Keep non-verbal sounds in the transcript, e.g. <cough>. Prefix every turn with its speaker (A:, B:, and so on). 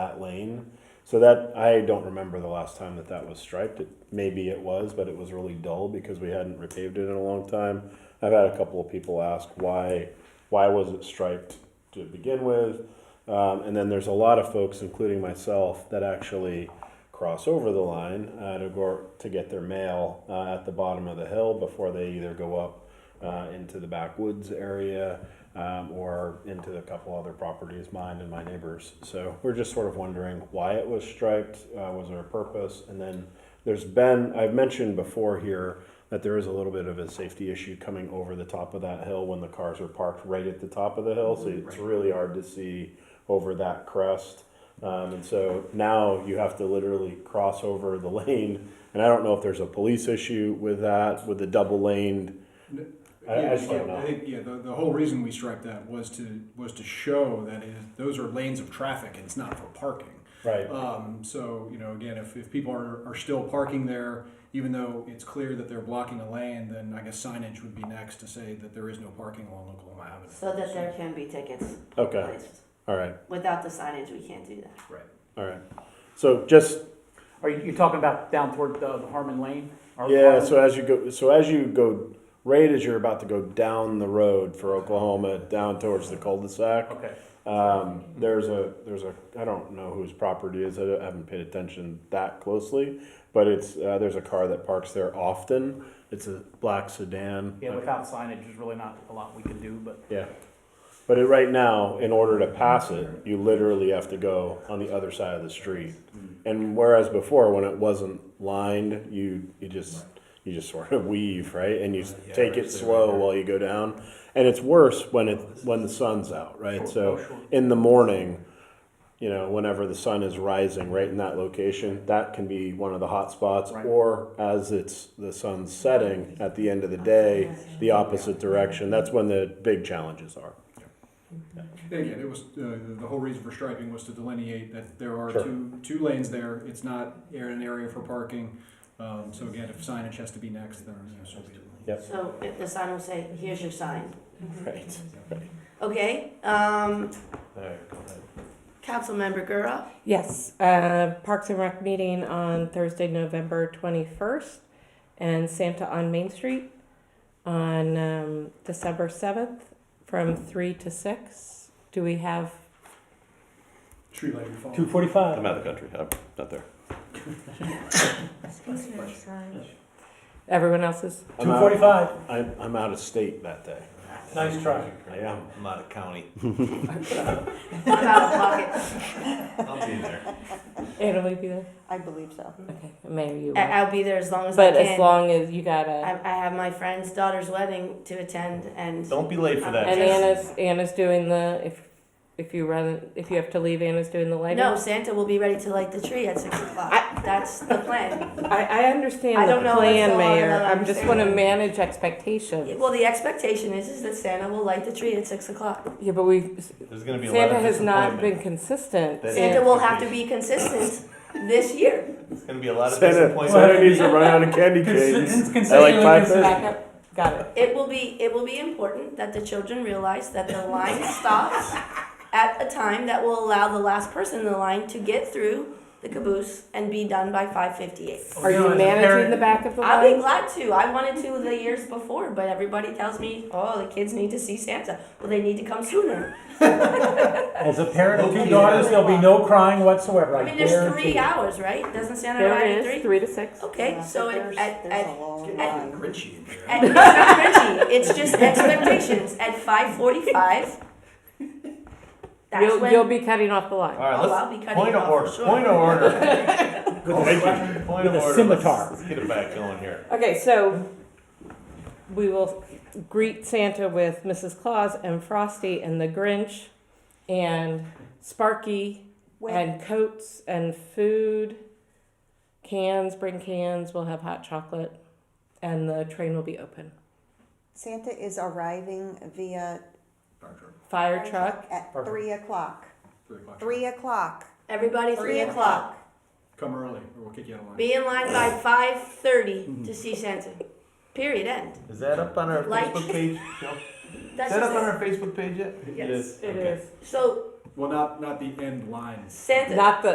A: that lane. So that I don't remember the last time that that was striped. It, maybe it was, but it was really dull because we hadn't repaved it in a long time. I've had a couple of people ask why why was it striped to begin with, um, and then there's a lot of folks, including myself, that actually cross over the line uh, to go to get their mail uh, at the bottom of the hill before they either go up uh, into the backwoods area um, or into a couple other properties, mine and my neighbors. So we're just sort of wondering why it was striped. Uh, was there a purpose? And then there's been I've mentioned before here that there is a little bit of a safety issue coming over the top of that hill when the cars are parked right at the top of the hill, so it's really hard to see over that crest. Um, and so now you have to literally cross over the <laughs> lane, and I don't know if there's a police issue with that, with the double laned. I- I
B: Yeah,
A: just don't
B: yeah,
A: know.
B: I think, yeah, the, the whole reason we striped that was to, was to show that it, those are lanes of traffic and it's not for parking.
A: Right.
B: Um, so, you know, again, if, if people are, are still parking there, even though it's clear that they're blocking a lane, then I guess signage would be next to say that there is no parking along Oklahoma Avenue.
C: So that there can be tickets
A: Okay,
C: placed.
A: all right,
C: Without the signage, we can't do that.
B: Right.
A: all right. So just
D: Are you, you talking about down toward the the Harmon Lane? Or-
A: Yeah, so as you go, so as you go, right as you're about to go down the road for Oklahoma, down towards the cul-de-sac,
D: Okay,
A: um, there's a there's a I don't know whose property it is. I don't- I haven't paid attention that closely, but it's uh, there's a car that parks there often. It's a black sedan.
D: yeah, without signage, there's really not a lot we can do, but
A: Yeah. But it, right now, in order to pass it, you literally have to go on the other side of the street. And whereas before, when it wasn't lined, you, you just, you just sort of weave, right? And you s- take it slow while you go down. And it's worse when it, when the sun's out, right? So in the morning, you know, whenever the sun is rising right in that location, that can be one of the hot spots.
D: Right.
A: Or as it's, the sun's setting at the end of the day, the opposite direction. That's when the big challenges are.
B: And again, it was, uh, the- the whole reason for striping was to delineate that there are
A: Sure.
B: two, two lanes there. It's not an area for parking. Um, so again, if signage has to be next, then, you know, so be it.
C: So if the sign will say, here's your sign.
E: Mm-hmm.
A: Right.
C: Okay, um, Councilmember Gura,
E: Yes, uh, Parks and Rec meeting on Thursday, November twenty-first, and Santa on Main Street on um, December seventh from three to six. Do we have?
B: Tree lighting fall.
F: I'm
A: Uh,
D: forty-five.
F: out of the country. I'm not there.
E: Everyone else is
A: I'm out, I'm, I'm out of state that day.
D: Nice try.
A: I am.
G: I'm out of
A: <laughs>
G: county.
C: I'm out of pocket.
G: I'll be there.
E: Anna, will you be there?
H: I believe so.
E: Okay, Mayor, you.
C: I-
E: will.
C: I'll be there as long as I
E: But
C: can.
E: as long as you gotta,
C: I, I have my friend's daughter's wedding to attend and
G: Don't be late for that.
E: and
C: just-
E: Anna's Anna's doing the if if you run if you have to leave, Anna's doing the lighting.
C: no, Santa will be ready to light the tree at six o'clock. That's the
E: <laughs>
C: plan.
E: I, I understand
C: I
E: the
C: don't know what's
E: plan,
C: going on, I
E: Mayor.
C: don't
E: I'm just want to
C: understand.
E: manage expectations.
C: Well, the expectation is, is that Santa will light the tree at six o'clock.
E: Yeah, but we
G: There's gonna be a lot
E: Santa
G: of
E: has not been
G: disappointment.
E: consistent.
G: That-
C: Santa
E: and-
C: will have to be consistent this year.
G: There's gonna be a lot of
A: Santa,
G: disappointment.
A: Santa needs to run out of candy canes. I like five thirty.
E: Back up. Got it.
C: It will be it will be important that the children realize that the line stops at a time that will allow the last person in the line to get through the caboose and be done by 5:58.
E: Are you managing the back of the
C: I'll be
E: line?
C: glad to. I wanted to the years before, but everybody tells me, "Oh, the kids need to see Santa." Well, they need to come sooner.
I: As a parent of two
G: Okay.
I: daughters, there'll be no crying whatsoever.
C: I mean, there's three hours, right? Doesn't Santa
E: There
C: arrive
E: it
C: at
E: is,
C: three?
E: three to six.
C: Okay,
H: Yeah,
C: so
H: but
C: it,
H: there's,
C: at,
H: there's
C: at
H: a long
C: at-
H: line.
G: Grinchy in there.
C: And it's not cringy. It's
H: <laughs>
C: just expectations. At five forty-five, that's
E: You'll,
C: when.
E: you'll be cutting off the line.
G: All right,
C: Oh, I'll be
G: let's,
C: cutting
G: point
C: it
G: of
C: off
G: order,
C: for sure.
G: point of order.
I: <laughs>
A: Thank you.
G: Point of
I: With
G: order.
I: a
G: Let's-
I: scimitar.
G: Let's get it back going here.
E: Okay, so we will greet Santa with Mrs. Claus and Frosty and the Grinch and Sparky
H: When,
E: and coats and food. Cans, bring cans. We'll have hot chocolate, and the train will be open.
H: Santa is arriving via
E: Fire truck.
H: at
I: Perfect.
H: three o'clock.
B: Three o'clock.
H: Three o'clock.
C: Everybody, three o'clock.
B: Come early, or we'll kick you out of line.
C: Be in line by
G: Mm-hmm.
C: five thirty to see Santa. Period. End.
G: Is that up on our
C: Like-
G: Facebook page? Joe? Is
C: <laughs> That's
G: that up on
C: just it.
G: our Facebook page yet?
C: Yes,
G: Okay.
C: So
J: Well, not, not the end line.
B: Santa.
C: Not the